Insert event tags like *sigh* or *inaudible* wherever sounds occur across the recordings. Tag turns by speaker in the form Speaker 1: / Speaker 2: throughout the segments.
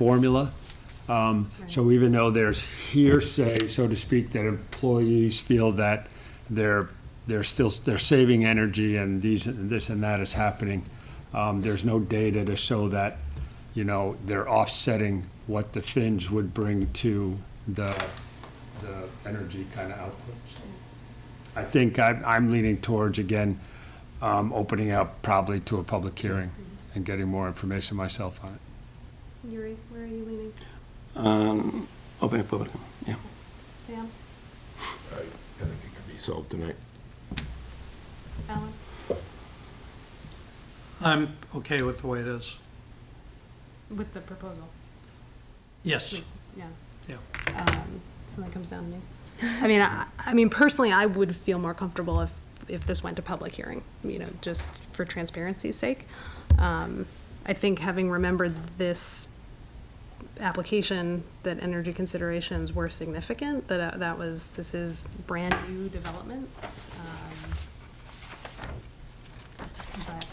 Speaker 1: formula. Um, So even though there's hearsay, so to speak, that employees feel that they're, they're still, they're saving energy and these, and this and that is happening, um, there's no data to show that, you know, they're offsetting what the fins would bring to the, the energy kind of output. So I think I, I'm leaning towards, again, um, opening up probably to a public hearing and getting more information myself on it.
Speaker 2: Yuri, where are you leaning?
Speaker 3: Um, Open it public, yeah.
Speaker 2: Sam?
Speaker 4: I think it could be solved tonight.
Speaker 2: Alan?
Speaker 5: I'm okay with the way it is.
Speaker 2: With the proposal?
Speaker 5: Yes,
Speaker 2: Yeah.
Speaker 5: yeah.
Speaker 2: Um, Something comes down to me. I mean, I, I mean, personally, I would feel more comfortable if, if this went to public hearing, you know, just for transparency's sake. Um, I think having remembered this application, that energy considerations were significant, that, uh, that was, this is brand-new development. um, But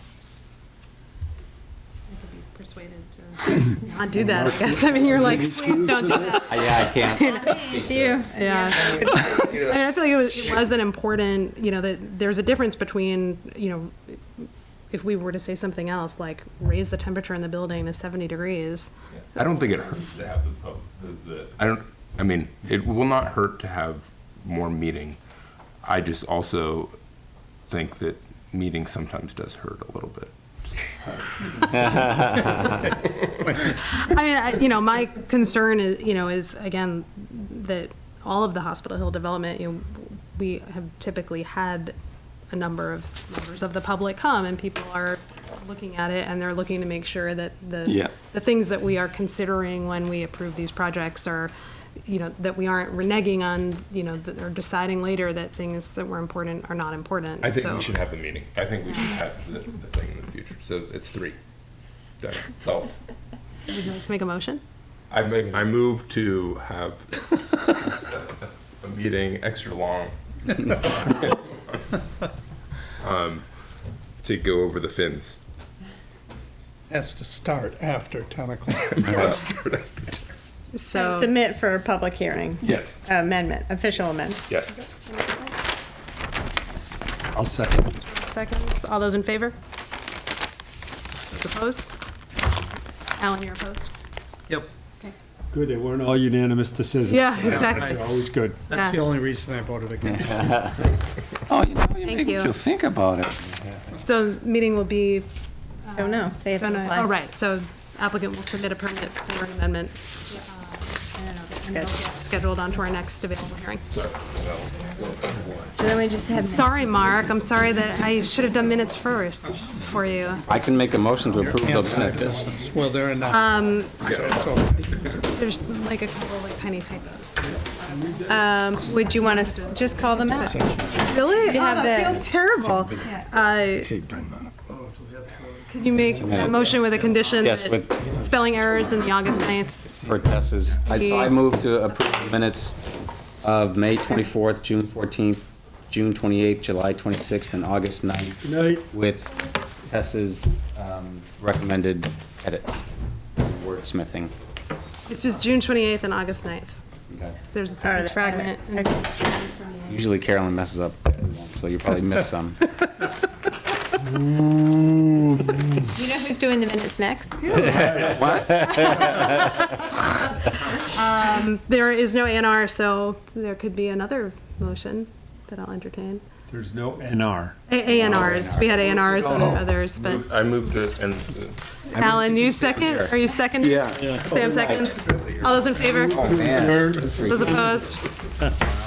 Speaker 2: I could be persuaded to not do that, I guess. I mean, you're like, please don't do that.
Speaker 3: Uh, Yeah, I can't.
Speaker 2: *laughs*
Speaker 6: Do you?
Speaker 2: Yeah. I mean, I feel like it was, it was an important, you know, that there's a difference between, you know, if we were to say something else, like raise the temperature in the building to seventy degrees.
Speaker 4: I don't think it hurts to have the pub, the, the, I don't, I mean, it will not hurt to have more meeting. I just also think that meeting sometimes does hurt a little bit.
Speaker 2: I mean, I, you know, my concern is, you know, is again, that all of the Hospital Hill development, you know, we have typically had a number of members of the public come and people are looking at it and they're looking to make sure that the
Speaker 3: Yeah.
Speaker 2: the things that we are considering when we approve these projects are, you know, that we aren't reneging on, you know, that- or deciding later that things that were important are not important.
Speaker 4: I think
Speaker 2: So-
Speaker 4: we should have the meeting. I think we should have the, the thing in the future. So it's three. Done. Solved.
Speaker 2: Would you like to make a motion?
Speaker 4: I make, I move to have a meeting extra *laughs* long. Um, To go over the fins.
Speaker 5: Has to start after 10
Speaker 4: *laughs*
Speaker 5: o'clock.
Speaker 2: So,
Speaker 6: Submit for public hearing.
Speaker 4: Yes.
Speaker 6: Amendment, official amendment.
Speaker 4: Yes.
Speaker 1: I'll second.
Speaker 2: seconds, all those in favor? Those Opposed? Alan, you're opposed?
Speaker 5: Yep,
Speaker 1: Good, they weren't all unanimous decisions.
Speaker 2: Yeah, exactly.
Speaker 1: They're Always good.
Speaker 5: that's the
Speaker 2: Yeah.
Speaker 5: only reason I voted against.
Speaker 3: Oh, you know, you
Speaker 2: Thank
Speaker 3: make
Speaker 2: you.
Speaker 3: you think about it.
Speaker 2: So meeting will be,
Speaker 6: Don't know, they
Speaker 2: oh,
Speaker 6: haven't
Speaker 2: no, oh,
Speaker 6: applied.
Speaker 2: right, so applicant will submit a permit for an amendment. uh, and it'll get Scheduled onto our next available hearing.
Speaker 6: So then we just had,
Speaker 2: Sorry, Mark, I'm sorry that I should have done minutes first for you.
Speaker 3: I can make a motion to approve the minutes.
Speaker 5: Well, there are not.
Speaker 2: There's like a couple like tiny typos. Um,
Speaker 6: would you want us, just call them out?
Speaker 2: Really?
Speaker 6: You
Speaker 2: Oh,
Speaker 6: have
Speaker 2: that
Speaker 6: the-
Speaker 2: feels terrible. Uh, Could you make a motion with a condition?
Speaker 3: Yes,
Speaker 2: that
Speaker 3: with-
Speaker 2: Spelling errors in the August 9th.
Speaker 3: For Tess's, I so I move to approve the minutes of May 24th, June 14th, June 28th, July 26th, and August 9th
Speaker 1: Night.
Speaker 3: with Tess's um, recommended edits, wordsmithing.
Speaker 2: It's just June 28th and August 9th. There's a
Speaker 6: Or
Speaker 2: sentence
Speaker 6: the-
Speaker 2: fragment. and-
Speaker 3: Usually Carolyn messes up, so you probably missed *laughs* some.
Speaker 6: You know who's doing the minutes next?
Speaker 2: There is no ANR, so there could be another motion that I'll entertain.
Speaker 1: There's no NR.
Speaker 2: A- ANRs, we had ANRs and others, but
Speaker 4: I moved it and.
Speaker 2: Alan, you second? Are you second? Yeah. Sam seconds? All those in favor?
Speaker 3: Oh, Man.
Speaker 2: Those opposed?